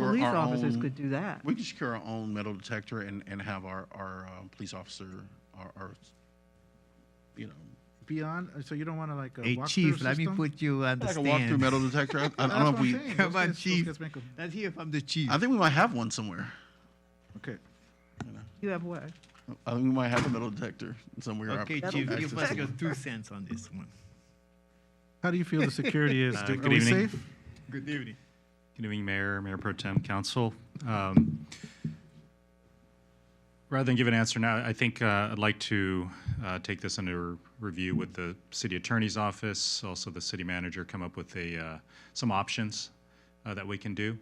police our officers own- could do that. We could secure our own metal detector and, and have our, our uh, police officer, our, our, you know, Beyond, uh, so you don't want to like a Hey, walkthrough Chief, let me system? put you on the like a stand. walk-through metal detector. I, I That's don't know what if I'm we, saying. Come Those on, guys- those Chief. guys make 'em. Let's hear from the Chief. I think we might have one somewhere. Okay. You have what? I think we might have a metal detector somewhere. I've- Okay, I've Chief, access give to us it. your two cents on this one. How do you feel the security is? Uh, Do- good Are we evening. safe? Good evening. Good evening, Mayor, Mayor Pro Tem, Council. Um, Rather than give an answer now, I think uh, I'd like to uh, take this under review with the city attorney's office, also the city manager, come up with a, uh, some options uh, that we can do.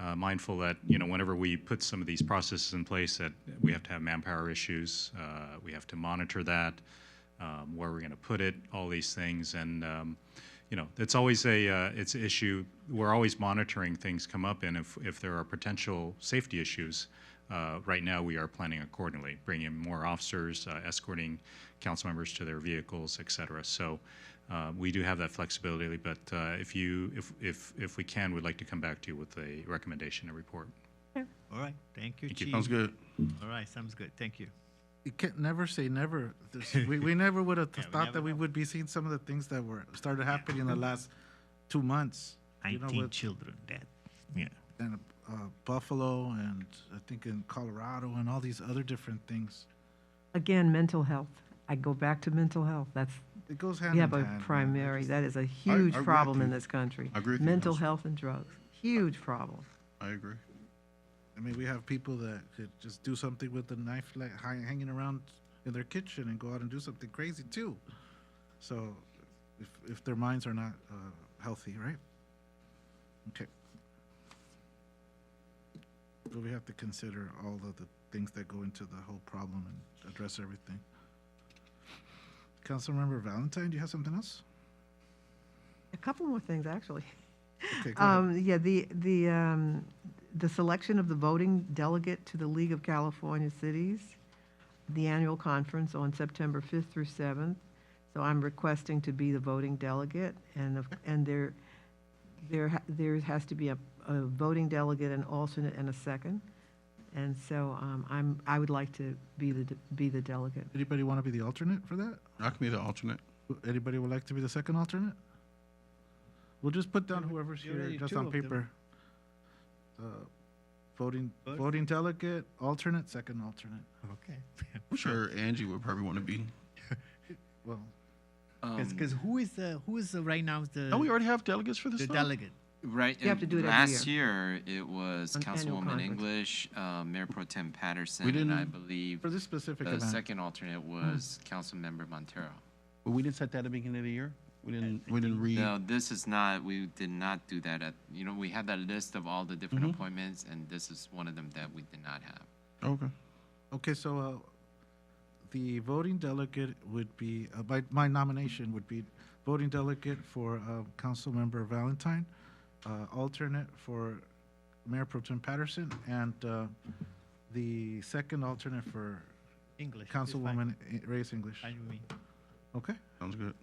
Uh, Mindful that, you know, whenever we put some of these processes in place, that we have to have manpower issues, uh, we have to monitor that, um, where we're going to put it, all these things. And, um, you know, it's always a, uh, it's an issue, we're always monitoring things come up, and if, if there are potential safety issues, uh, right now, we are planning accordingly, bringing more officers, uh, escorting council members to their vehicles, et cetera. So uh, we do have that flexibility, but uh, if you, if, if, if we can, we'd like to come back to you with a recommendation and report. All right, thank you, Thank you. Chief. Sounds good. All right, sounds good, thank you. You can't never say never. This- we, we never would have Yeah, we thought never that we would be seeing some of the things that were started happening in the last two months. You know, Nineteen with- children dead. Yeah, and uh, Buffalo and I think in Colorado and all these other different things. Again, mental health. I go back to mental health. That's, It goes hand we in have hand. a man. primary, that is a huge agree with problem you. in this country. I agree with you, Mental Council. health and drugs, huge problem. I agree. I mean, we have people that could just do something with a knife like hi- hanging around in their kitchen and go out and do something crazy too. So, if if their minds are not uh, healthy, right? Okay. But we have to consider all of the things that go into the whole problem and address everything. Councilmember Valentine, do you have something else? A couple more things, actually. Okay, go ahead. Um, yeah, the, the, um, the selection of the voting delegate to the League of California Cities, the annual conference on September 5th through 7th. So I'm requesting to be the voting delegate and, of- and there, there, ha- there has to be a, a voting delegate, an alternate and a second. And so, um, I'm, I would like to be the, de- be the delegate. Anybody want to be the alternate for that? I can be the alternate. Anybody would like to be the second alternate? We'll just put down whoever's you here, already just two on of them. paper. Uh, Voting, Vote. voting delegate, alternate, second alternate. okay. I'm sure Angie would probably want to be. Well, Because, who is the, who is the- right now the? Oh, we already have delegates for this The stuff? delegate. Right. You have and to do it every Last year, it was An annual Councilwoman conference. English, uh, Mayor Pro Tem Patterson, We and I didn't- believe for this specific the event, Uh, Hmm. second alternate was Councilmember Montero. But we didn't set that at the beginning of the year? We didn't, we didn't read? No, this is not, we did not do that at, you know, we had that list of all the different Mm-hmm. appointments, and this is one of them that we did not have. Okay. okay, so, uh, the voting delegate would be, uh, my, my nomination would be voting delegate for, uh, Councilmember Valentine, uh, alternate for Mayor Pro Tem Patterson, and, uh, the second alternate for English. it's fine. Councilwoman I- Reyes English. Fine with me. Okay, Sounds good.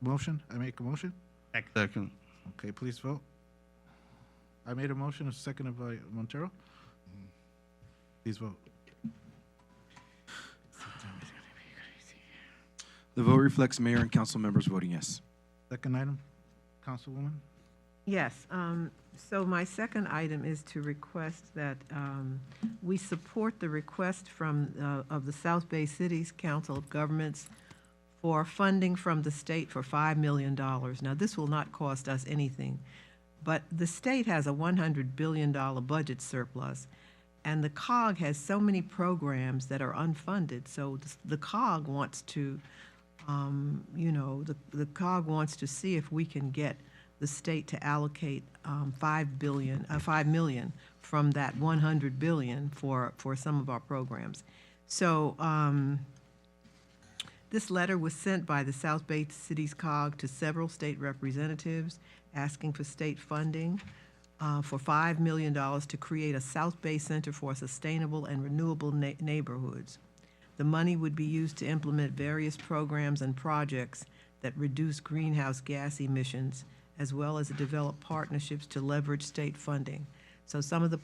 motion, I make a motion. Second. Second. Okay, please vote. I made a motion, a second by Montero. Please vote. The vote reflects mayor and council members voting yes. Second item, Councilwoman. Yes, um, so my second item is to request that um, we support the request from, uh, of the South Bay Cities Council of Governments for funding from the state for $5 million. Now, this will not cost us anything, but the state has a $100 billion budget surplus, and the COG has so many programs that are unfunded, so the- the COG wants to um, you know, the, the COG wants to see if we can get the state to allocate um, five billion, uh, five million from that one hundred billion for, for some of our programs. So, um, this letter was sent by the South Bay Cities COG to several state representatives asking for state funding uh, for $5 million to create a South Bay Center for Sustainable and Renewable Na- Neighborhoods. The money would be used to implement various programs and projects that reduce greenhouse gas emissions, as well as develop partnerships to leverage state funding. So some of the